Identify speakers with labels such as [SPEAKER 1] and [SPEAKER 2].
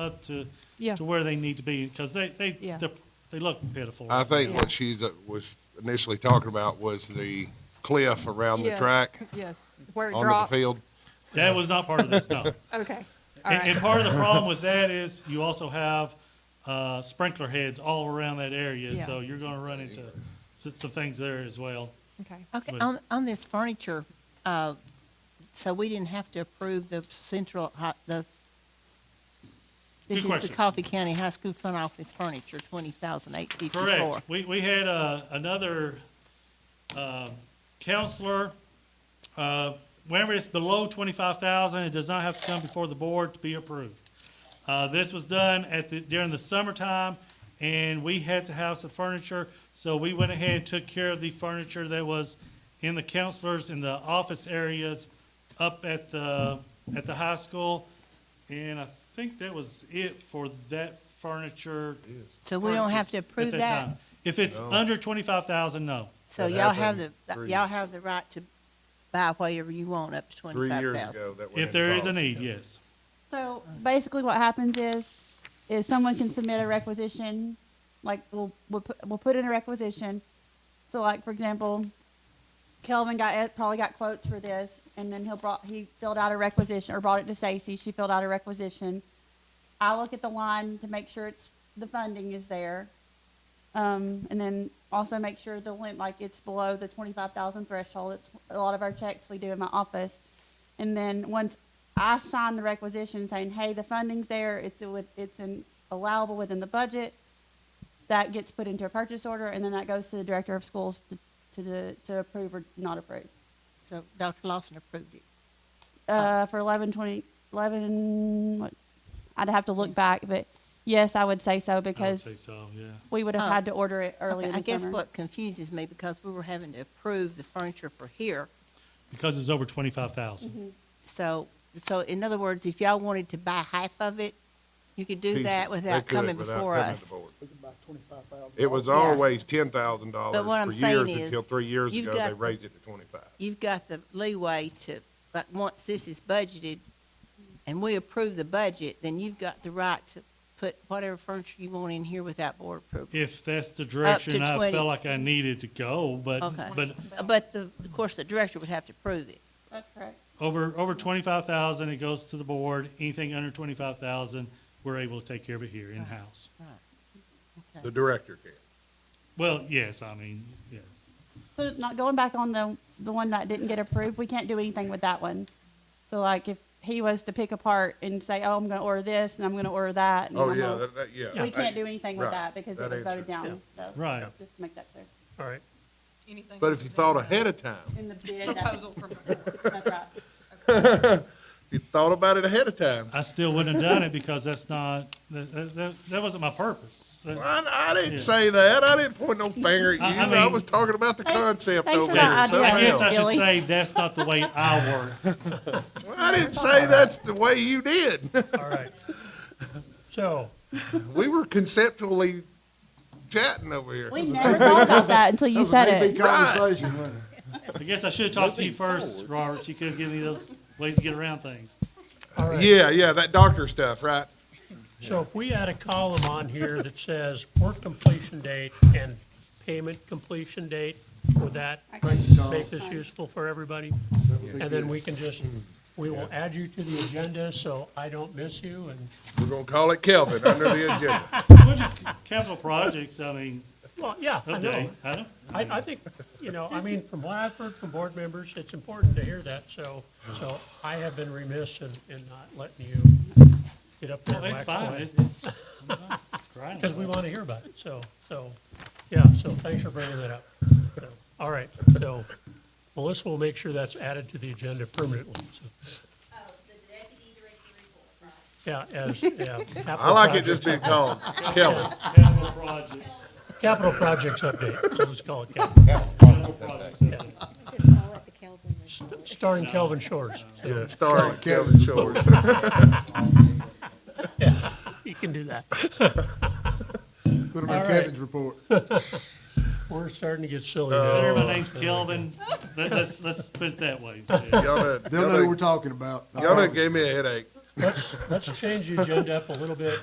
[SPEAKER 1] up to,
[SPEAKER 2] Yeah.
[SPEAKER 1] to where they need to be, because they, they,
[SPEAKER 2] Yeah.
[SPEAKER 1] they're- they look pitiful.
[SPEAKER 3] I think
[SPEAKER 2] Yeah.
[SPEAKER 3] what she's, uh, was initially talking about was the cliff around the
[SPEAKER 2] Yes,
[SPEAKER 3] track
[SPEAKER 2] Yes, where it
[SPEAKER 3] onto
[SPEAKER 2] drops.
[SPEAKER 3] the field.
[SPEAKER 1] That was not part of this, no.
[SPEAKER 2] Okay, all
[SPEAKER 1] And, and
[SPEAKER 2] right,
[SPEAKER 1] part of the problem with that is you also have, uh, sprinkler heads all around that area,
[SPEAKER 2] Yeah.
[SPEAKER 1] so you're gonna run into some, some things there as well.
[SPEAKER 2] okay.
[SPEAKER 4] Okay,
[SPEAKER 1] But-
[SPEAKER 4] on, on this furniture, uh, so we didn't have to approve the central, hi- the,
[SPEAKER 1] Good
[SPEAKER 4] this is the
[SPEAKER 1] question.
[SPEAKER 4] Coffee County High School front office furniture, twenty thousand eight fifty-four.
[SPEAKER 1] Correct. We, we had, uh, another, um, counselor, uh, whenever it's below twenty-five thousand, it does not have to come before the board to be approved. Uh, this was done at the, during the summertime, and we had to have some furniture, so we went ahead and took care of the furniture that was in the counselors, in the office areas, up at the, at the high school. And I think that was it for that furniture
[SPEAKER 4] So we don't have to
[SPEAKER 1] at
[SPEAKER 4] approve
[SPEAKER 1] time.
[SPEAKER 4] that?
[SPEAKER 1] If it's under twenty-five thousand, no.
[SPEAKER 4] So
[SPEAKER 5] That
[SPEAKER 4] y'all have the,
[SPEAKER 5] happened three-
[SPEAKER 4] y'all have the right to buy whatever you want up to
[SPEAKER 5] Three
[SPEAKER 4] twenty-five
[SPEAKER 5] years
[SPEAKER 4] thousand.
[SPEAKER 5] ago, that went
[SPEAKER 1] If there is a
[SPEAKER 5] into
[SPEAKER 1] need, yes.
[SPEAKER 6] So basically, what happens is, is someone can submit a requisition, like we'll we'll put, we'll put in a requisition. So like for example, Kelvin got it- probably got quotes for this, and then he'll brought he filled out a requisition or brought it to Stacy. She filled out a requisition. I look at the line to make sure it's the funding is there, um, and then also make sure the limit like it's below the twenty five thousand threshold. It's a lot of our checks we do in my office, and then once I sign the requisition saying, hey, the funding's there, it's, with- it's in- allowable within the budget, that gets put into a purchase order, and then that goes to the director of schools to, to, the- to approve or not approve.
[SPEAKER 4] So Dr. Lawson approved it.
[SPEAKER 6] Uh, for eleven twenty, eleven, what- I'd have to look back, but yes, I would say so,
[SPEAKER 1] I would
[SPEAKER 6] because
[SPEAKER 1] say so, yeah.
[SPEAKER 6] we would have
[SPEAKER 4] Oh.
[SPEAKER 6] had to order it
[SPEAKER 4] Okay,
[SPEAKER 6] early in the
[SPEAKER 4] I guess
[SPEAKER 6] summer.
[SPEAKER 4] what confuses me, because we were having to approve the furniture for here,
[SPEAKER 1] Because it's over twenty-five
[SPEAKER 4] Mm-hmm.
[SPEAKER 1] thousand.
[SPEAKER 4] so, so in other words, if y'all wanted to buy half of it, you could do
[SPEAKER 3] Pieces.
[SPEAKER 4] that
[SPEAKER 3] They
[SPEAKER 4] without
[SPEAKER 3] could,
[SPEAKER 4] coming
[SPEAKER 3] without
[SPEAKER 4] before
[SPEAKER 3] coming
[SPEAKER 4] us.
[SPEAKER 3] to board.
[SPEAKER 7] twenty-five thousand.
[SPEAKER 3] It was always ten thousand dollars
[SPEAKER 4] But what I'm
[SPEAKER 3] for years
[SPEAKER 4] saying is,
[SPEAKER 3] until three years
[SPEAKER 4] you've
[SPEAKER 3] ago,
[SPEAKER 4] got
[SPEAKER 3] they
[SPEAKER 4] the-
[SPEAKER 3] raised it to twenty-five.
[SPEAKER 4] you've got the leeway to, like, once this is budgeted and we approve the budget, then you've got the right to put whatever furniture you want in here without board approval.
[SPEAKER 1] If that's the direction I
[SPEAKER 4] 20.
[SPEAKER 1] felt like I needed to go, but,
[SPEAKER 4] Okay.
[SPEAKER 1] but
[SPEAKER 4] But the, of course, the director would have to approve it.
[SPEAKER 6] That's correct.
[SPEAKER 1] over, over twenty-five thousand, it goes to the board. Anything under twenty-five thousand, we're able to take care of it here in-house.
[SPEAKER 3] The director can.
[SPEAKER 1] Well, yes, I mean, yes.
[SPEAKER 6] So not going back on the, the one that didn't get approved, we can't do anything with that one. So like if he was to pick apart and say, oh, I'm gonna order this and I'm gonna order that. and
[SPEAKER 3] Oh,
[SPEAKER 6] I'm
[SPEAKER 3] yeah,
[SPEAKER 6] gonna-
[SPEAKER 3] that, that, yeah.
[SPEAKER 6] We can't do anything with
[SPEAKER 3] Right.
[SPEAKER 6] that because it
[SPEAKER 3] That
[SPEAKER 6] was voted
[SPEAKER 3] answers-
[SPEAKER 6] down. So
[SPEAKER 1] Right.
[SPEAKER 6] Just to make that clear.
[SPEAKER 8] All right,
[SPEAKER 3] But if you thought ahead of time,
[SPEAKER 6] In the bid, that's right.
[SPEAKER 3] if you thought about it ahead of time,
[SPEAKER 1] I still wouldn't have done it because that's not, that, that- that, that wasn't my purpose. That's-
[SPEAKER 3] I, I
[SPEAKER 1] Yeah.
[SPEAKER 3] didn't say that. I didn't point no finger at
[SPEAKER 1] I-
[SPEAKER 3] you.
[SPEAKER 1] I
[SPEAKER 3] I
[SPEAKER 1] mean-
[SPEAKER 3] was talking about the
[SPEAKER 6] Thanks-
[SPEAKER 3] concept
[SPEAKER 6] thanks
[SPEAKER 3] over
[SPEAKER 6] for
[SPEAKER 3] here.
[SPEAKER 6] that idea.
[SPEAKER 3] something
[SPEAKER 1] I guess
[SPEAKER 3] else.
[SPEAKER 1] I should
[SPEAKER 4] Billy.
[SPEAKER 1] say that's not the way I work.
[SPEAKER 3] Well, I didn't say that's the way you did.
[SPEAKER 8] all right. So,
[SPEAKER 3] We were conceptually chatting over here.
[SPEAKER 6] We never thought about that until you said
[SPEAKER 7] Big
[SPEAKER 6] it.
[SPEAKER 7] conversation, wasn't it?
[SPEAKER 1] I guess I should have talked to you first, Robert. You could have given me those ways to get around things.
[SPEAKER 8] all right.
[SPEAKER 3] Yeah, yeah, that doctor stuff, right?
[SPEAKER 8] So if we had a column on here that says work completion date and payment completion date, would that
[SPEAKER 7] Thank you, Tom.
[SPEAKER 8] make this useful for everybody? And then we can just, we will add you to the agenda so I don't miss you and,
[SPEAKER 3] We're gonna call it Kelvin under the agenda.
[SPEAKER 1] Well, just capital projects, I mean,
[SPEAKER 8] well, yeah, I know.
[SPEAKER 1] okay, I don't,
[SPEAKER 8] I, I think, you know, I mean, from what I've heard from board members, it's important to hear that, so, so I have been remiss in, in not letting you get up there
[SPEAKER 1] well,
[SPEAKER 8] and
[SPEAKER 1] it's
[SPEAKER 8] wax
[SPEAKER 1] fine,
[SPEAKER 8] away.
[SPEAKER 1] it's, it's, I'm not crying
[SPEAKER 8] Because
[SPEAKER 1] about
[SPEAKER 8] we
[SPEAKER 1] it.
[SPEAKER 8] want to hear about it, so, so, yeah, so thanks for bringing that up. So, All right, so Melissa will make sure that's added to the agenda permanently, so, yeah, as, yeah.
[SPEAKER 3] I like it just being called Kelvin.
[SPEAKER 1] Capital projects,
[SPEAKER 8] Capital projects update, so let's call it capital,
[SPEAKER 1] capital projects, I think.
[SPEAKER 8] starring Kelvin Shores.
[SPEAKER 3] Yeah, starring Kelvin Short.
[SPEAKER 8] You can do that.
[SPEAKER 7] Put them
[SPEAKER 8] All
[SPEAKER 7] in
[SPEAKER 8] right.
[SPEAKER 7] Kevin's report.
[SPEAKER 8] We're starting to get silly now.
[SPEAKER 3] Oh.
[SPEAKER 1] Consider my name's Kelvin, let, let's, let's put it that way instead.
[SPEAKER 3] Y'all done-
[SPEAKER 7] They'll
[SPEAKER 3] y'all
[SPEAKER 7] know what
[SPEAKER 3] done-
[SPEAKER 7] we're talking about. I
[SPEAKER 3] y'all done
[SPEAKER 7] promise.
[SPEAKER 3] gave me a headache.
[SPEAKER 8] let's, let's change the agenda up a little bit